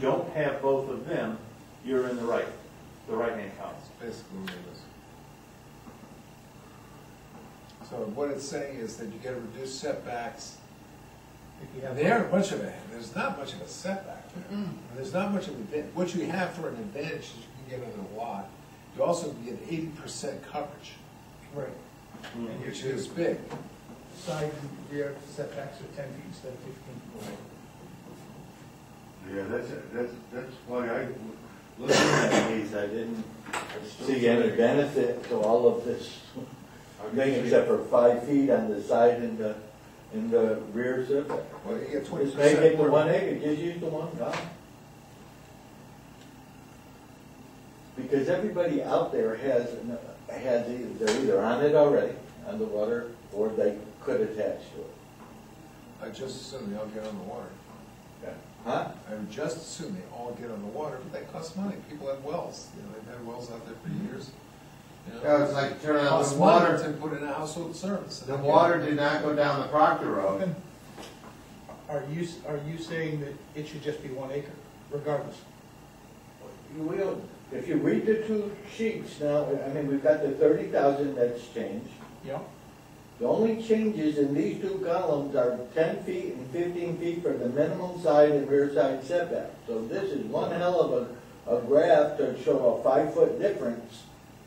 don't have both of them, you're in the right, the right-hand column. basically what it is. So what it's saying is that you get reduced setbacks. There aren't much of a, there's not much of a setback there. Mm-hmm. There's not much of an advantage, what you have for an advantage is you can get another lot. You also can get eighty percent coverage, Right, Mm-hmm. which is big. side and rear setbacks are ten feet instead of fifteen. Yeah, that's, that's, that's why I, looking at these, I didn't see any benefit to all of this thing, except for five feet on the side and the, and the rear setback. Well, you get twenty Just make percent it the one more. acre, just use the one dot. Because everybody out there has, an- has, either they're either on it already, on the water, or they could attach to it. I just assume they all get on the water. Huh? I would just assume they all get on the water, but that costs money. People have wells, you know, they've had wells out there for years. you know. Yeah, it's like turning on Costs the money water, to put in a household service. the water did not go down the Proctor Road. Are you, are you saying that it should just be one acre regardless? You will, if you read the two sheets now, I mean, we've got the thirty thousand that's changed. Yeah. The only changes in these two columns are ten feet and fifteen feet for the minimum side and rear side setback. So this is one hell of a, a graph to show a five-foot difference,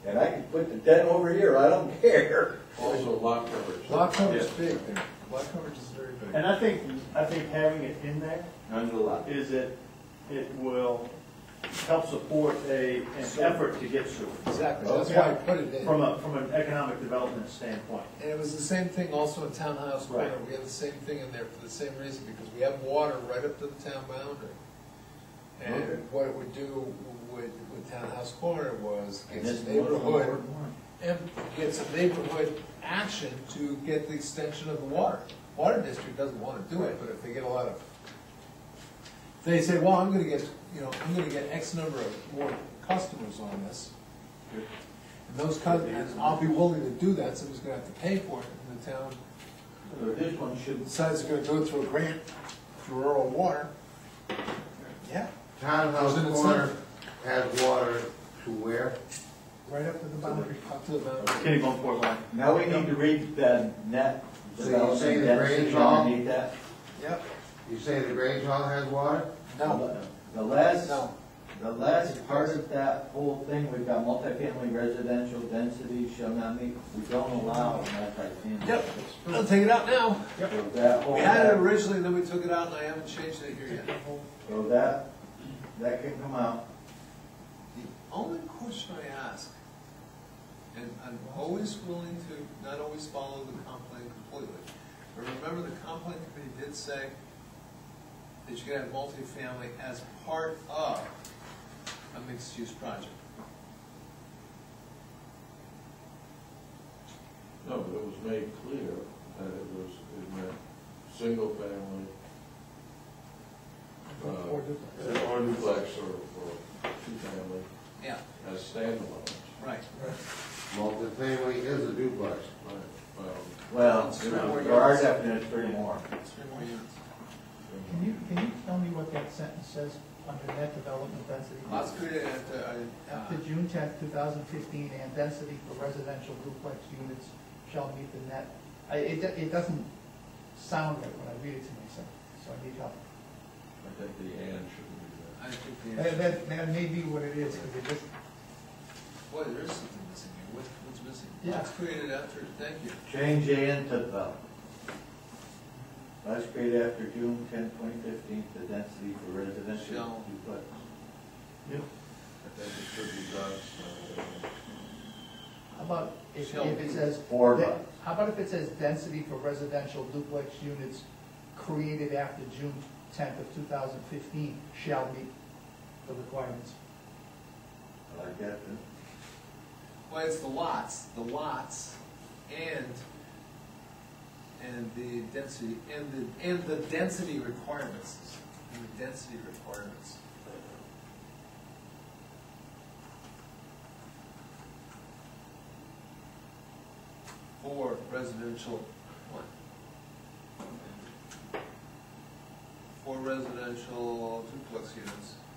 and I can put the ten over here, I don't care. Also lot coverage. Lot coverage is big there. Lot coverage is very big. And I think, I think having it in there Under lot. is it, it will help support a, an effort to get sewer. Exactly, that's why I put it in. Oh, From a, from an economic development standpoint. And it was the same thing also in Townhouse Corner. Right. We had the same thing in there for the same reason, because we have water right up to the town boundary. Okay. And what it would do with, with Townhouse Corner was get And this some one- neighborhood, and get some neighborhood action to get the extension of the water. Water district doesn't want to do it, but if they get a lot of, they say, well, I'm gonna get, you know, I'm gonna get X number of more customers on this. And those customers, I'll be willing to do that, somebody's gonna have to pay for it, and the town So this one should, decides it's gonna do it through a grant for rural water. Yeah, Townhouse Wasn't it Corner has water to where? Right up to the boundary. up to the mountain. Kenny Bunkport line. now we need to read the net So you're saying development the density range all- underneath that. Yep. You say the Grange Hall has water? No, The last. no. The last part of that whole thing, we've got multifamily residential density shall not meet, we don't allow multifamily. Yep, I'll take it out now. So that whole, We had it originally, then we took it out, and I haven't changed it here yet. so that, that can come out. The only question I ask, and I'm always willing to not always follow the complaint completely, but remember the complaint committee did say that you could have multifamily as part of a mixed-use project. No, but it was made clear that it was, it meant single family. uh, Or duplex. Or duplex or, or two family Yeah, as standalone. right. Multifamily is a duplex. Right, well, Well, It's three more there are units. definitely three more. Three more units. Can you, can you tell me what that sentence says under net development density? Lots created after, I, uh, After June tenth, two thousand fifteen, and density for residential duplex units shall meet the net. I, it, do- it doesn't sound right when I read it to myself, so I need help. I think the and shouldn't be there. I think the That, answer. that, that may be what it is, because it just, Boy, there is something missing here. What, what's missing? Yeah. Lots created after, thank you. Change and to the. Last grade after June 10, 2015. the density for residential Shall. duplex. I think it should be done. uh, how about if, Shall if it says. Four that- months. How about if it says density for residential duplex units created after June tenth of two thousand fifteen shall meet the requirements? I like that, huh? Well, it's the lots, the lots, and, and the density, and the, and the density requirements, and the density requirements. For residential, what? For residential residential duplex units.